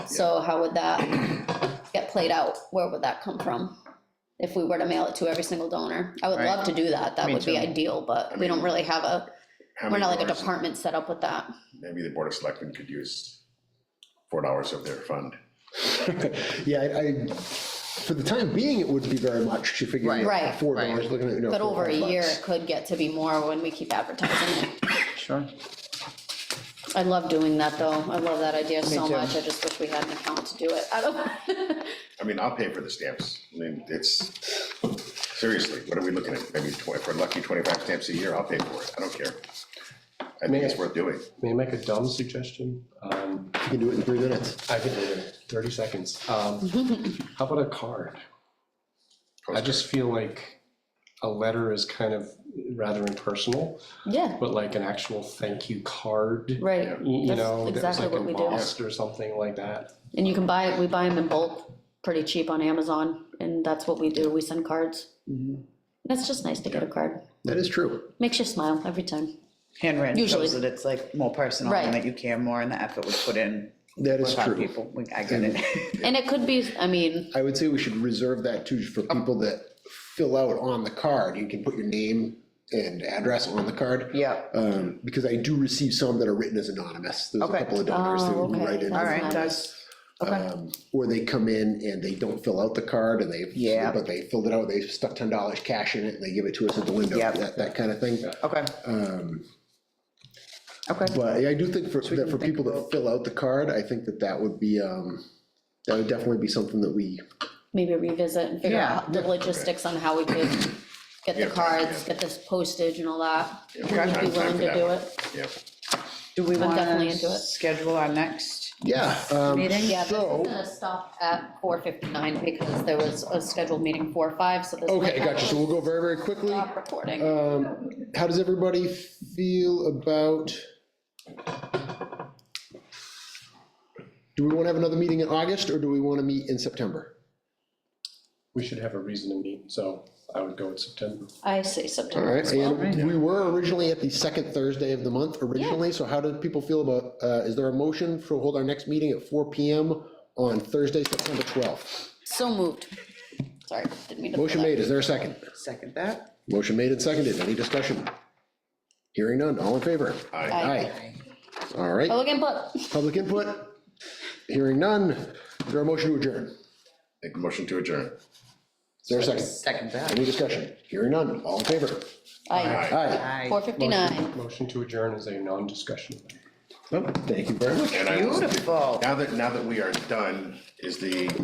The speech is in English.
So how would that get played out? Where would that come from? If we were to mail it to every single donor? I would Right. love to do that. That Me would be too. ideal, but we don't really have a, How we're many not like a dollars- department set up with that. Maybe the board of selectmen could use four dollars of their fund. Yeah, I, I, for the time being, it wouldn't be very much, you figure. Right. Right. Four Right. dollars, looking at, you know. But four, over a five year, bucks. it could get to be more when we keep advertising it. Sure. I love doing that, though. I love that idea so too. much. I just wish we had an account to do it. I don't, I mean, I'll pay for the stamps. I mean, it's, seriously, what are we looking at? Maybe twenty, for lucky twenty-five stamps a year, I'll pay for it. I don't care. I think it's worth doing. May I make a dumb suggestion? Um, You can do it in three minutes. I can, thirty seconds. Um, How about a card? I just feel like a letter is kind of rather impersonal, yeah, but like an actual thank you card, right. you That's know, that's exactly like what we do. embossed or something like that. And you can buy, it. we buy them in bulk, pretty cheap on Amazon, and that's what we do, we send cards. Mm-hmm. That's just nice to get a card, That is true. makes you smile every time. handwritten Usually. shows that it's like more personal Right. and that you care more and the effort was put in. That is with our true. People, We- I get it. And it could be, I mean, I would say we should reserve that too for Oh. people that fill out on the card. You can put your name and address on the card. Yeah. Um, because I do receive some that are written as anonymous. There's a Okay. couple of donors that Oh, will okay. write in. All All right, nice. Doug. Okay, um, Or they come in and they don't fill out the card and they, Yeah. but they filled it out, they stuck ten dollars cash in it and they give it to us at the window, Yeah. that, that kind of thing. okay. Um, Okay, But I do think for, that for people that fill out the card, I think that that would be, um, that would definitely be something that we, maybe revisit and figure Yeah, out the logistics on how we could get the Yeah, cards, yeah. get this postage and all that. Yeah, Would you time- be time willing for to that do one. it? Yeah, do we want definitely to into it. schedule our next yeah. um, meeting? Yeah, this is So- gonna stop at four fifty-nine, because there was a scheduled meeting four, five, so this. Okay, gotcha, so we'll go very, very quickly. Stop recording. Um, how does everybody feel about? Do we want to have another meeting in August or do we want to meet in September? We should have a reason to meet, so I would go with September. I say All September right, as well. and we were originally at the second Thursday of the month originally, so how do people feel about, uh, is there a motion for hold our next meeting at four PM on Thursday, September twelfth? So moved. Sorry, didn't mean to. pull Motion that. made, is there a second? Second that. Motion made and seconded, any discussion? Hearing none, all in favor? I, Aye. Aye. All right, Public input. public input, hearing none, is there a motion to adjourn? make a motion to adjourn. Is there a second? Second that. Any discussion? Hearing none, all in favor? Aye. Aye. Aye. Aye. Four fifty-nine. Motion to adjourn is a non-discussion. Well, Oh, Thank you very much. And I will- Beautiful. Now that, now that we are done, is the